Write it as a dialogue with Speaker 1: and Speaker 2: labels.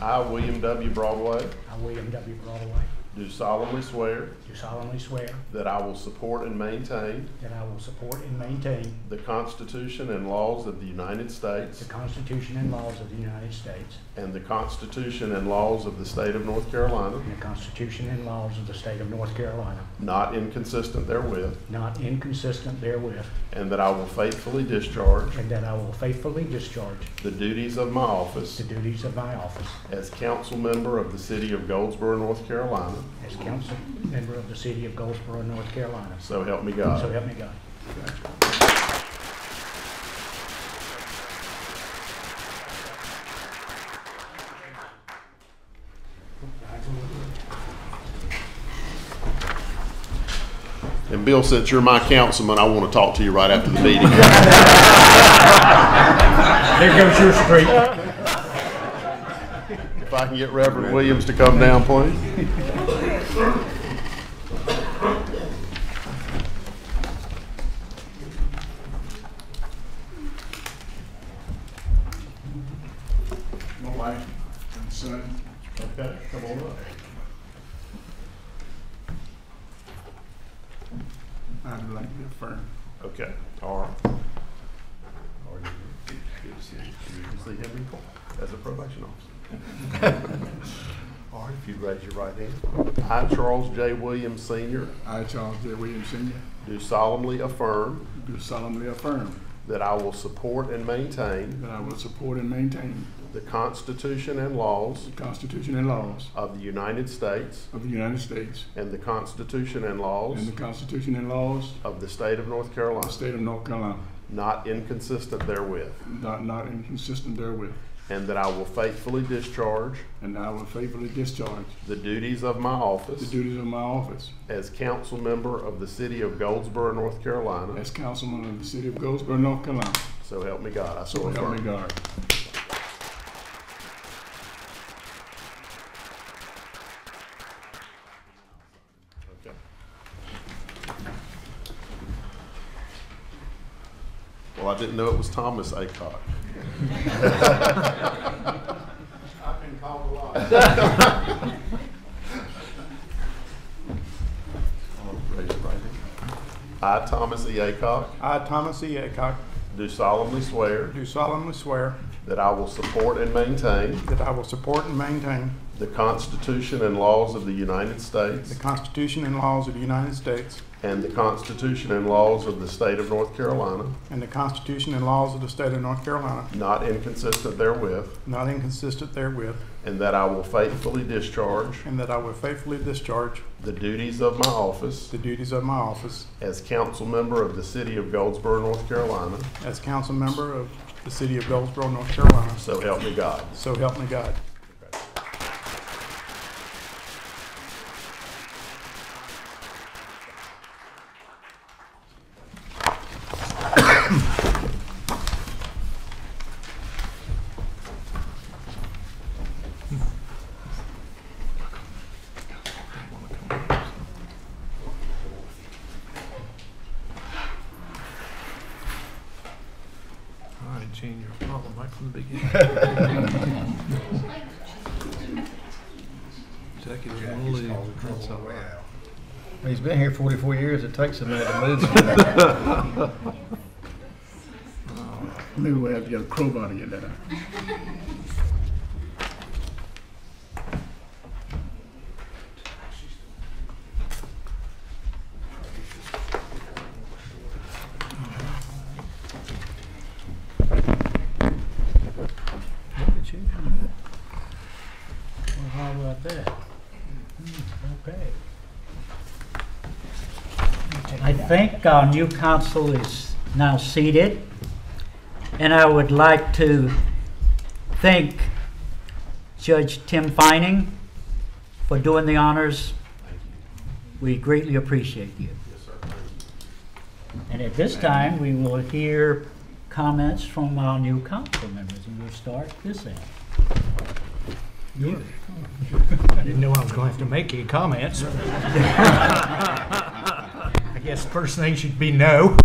Speaker 1: I, William W. Broadway,
Speaker 2: I, William W. Broadway,
Speaker 1: do solemnly swear
Speaker 2: do solemnly swear
Speaker 1: that I will support and maintain
Speaker 2: that I will support and maintain
Speaker 1: the Constitution and laws of the United
Speaker 2: the
Speaker 1: States
Speaker 2: Constitution and laws of the United States
Speaker 1: and the Constitution and laws of the State of North Carolina,
Speaker 2: and the Constitution and laws of the state of North Carolina,
Speaker 1: not inconsistent therewith,
Speaker 2: not inconsistent therewith,
Speaker 1: and that I will faithfully discharge
Speaker 2: and that I will faithfully discharge
Speaker 1: the duties of my office
Speaker 2: the duties of my office
Speaker 1: as council member of the City of Goldsboro, North Carolina.
Speaker 2: as council member of the city of Goldsboro, North Carolina.
Speaker 1: So help me
Speaker 2: So
Speaker 1: God.
Speaker 2: help me God.
Speaker 1: And Bill, since you're my councilman, I want to talk to you right after the meeting.
Speaker 2: There goes your street.
Speaker 1: If I can get Reverend Williams to come down, please.
Speaker 3: my wife and son.
Speaker 1: Okay, come on up.
Speaker 3: I'd like to affirm.
Speaker 1: Okay, all right. Good to see you. Good to see him in court as a probation officer. All right, if you'd raise your right hand. I, Charles J. Williams, Sr.,
Speaker 3: I, Charles J. Williams Sr.,
Speaker 1: do solemnly affirm
Speaker 3: do solemnly affirm
Speaker 1: that I will support and maintain
Speaker 3: that I will support and maintain
Speaker 1: the Constitution and laws
Speaker 3: the Constitution and laws
Speaker 1: of the United States
Speaker 3: of the United States
Speaker 1: and the Constitution and
Speaker 3: and
Speaker 1: laws
Speaker 3: the Constitution and laws
Speaker 1: of the State of North
Speaker 3: of the
Speaker 1: Carolina,
Speaker 3: State of North Carolina,
Speaker 1: not inconsistent therewith,
Speaker 3: not not inconsistent therewith,
Speaker 1: and that I will faithfully discharge
Speaker 3: and I will faithfully discharge
Speaker 1: the duties of my
Speaker 3: the
Speaker 1: office
Speaker 3: duties of my office
Speaker 1: as council member of the city of Goldsboro, North Carolina.
Speaker 3: as councilman of the City of Goldsboro, North Carolina.
Speaker 1: So help me God. I so
Speaker 3: So help me
Speaker 1: affirm.
Speaker 3: God.
Speaker 1: Okay. Well, I didn't know it was Thomas Acock.
Speaker 3: I've been called a lot.
Speaker 1: Raise your right hand. I, Thomas E. Acock,
Speaker 4: I, Thomas E. Aycock,
Speaker 1: do solemnly swear
Speaker 4: do solemnly swear
Speaker 1: that I will support and maintain
Speaker 4: that I will support and maintain
Speaker 1: the Constitution and laws of the United
Speaker 4: the
Speaker 1: States
Speaker 4: Constitution and laws of the United States
Speaker 1: and the Constitution and laws of the state of North Carolina,
Speaker 4: and the Constitution and laws of the State of North Carolina,
Speaker 1: not inconsistent therewith,
Speaker 4: not inconsistent therewith,
Speaker 1: and that I will faithfully discharge
Speaker 4: and that I will faithfully discharge
Speaker 1: the duties of my office
Speaker 4: the duties of my office
Speaker 1: as council member of the city of Goldsboro, North Carolina.
Speaker 4: as council member of the City of Goldsboro, North Carolina.
Speaker 1: So help me God.
Speaker 4: So help me God.
Speaker 5: All right, Gene, you're problem right from the beginning. Executive will leave. That's all right.
Speaker 6: He's been here 44 years. It takes a minute to move.
Speaker 3: Maybe we'll have to get a crowbar to get that out.
Speaker 5: Look at you.
Speaker 2: Well, how about that? Hmm, Okay.
Speaker 7: I think our new council is now seated, and I would like to thank Judge Tim Fining for doing the honors. We greatly appreciate you. And at this time, we will hear comments from our new council members, and we'll start this end.
Speaker 2: I didn't know I was gonna have to make any comments. I guess the first thing should be no.